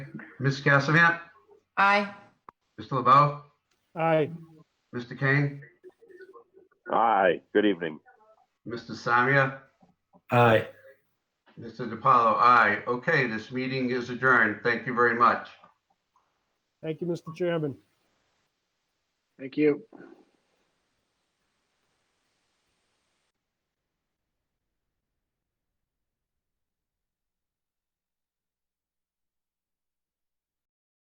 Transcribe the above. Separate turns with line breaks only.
Ms. Cassavant?
Aye.
Mr. LeBeau?
Aye.
Mr. Kane?
Aye, good evening.
Mr. Samia?
Aye.
Mr. DiPaolo, aye. Okay, this meeting is adjourned. Thank you very much.
Thank you, Mr. Chairman.
Thank you.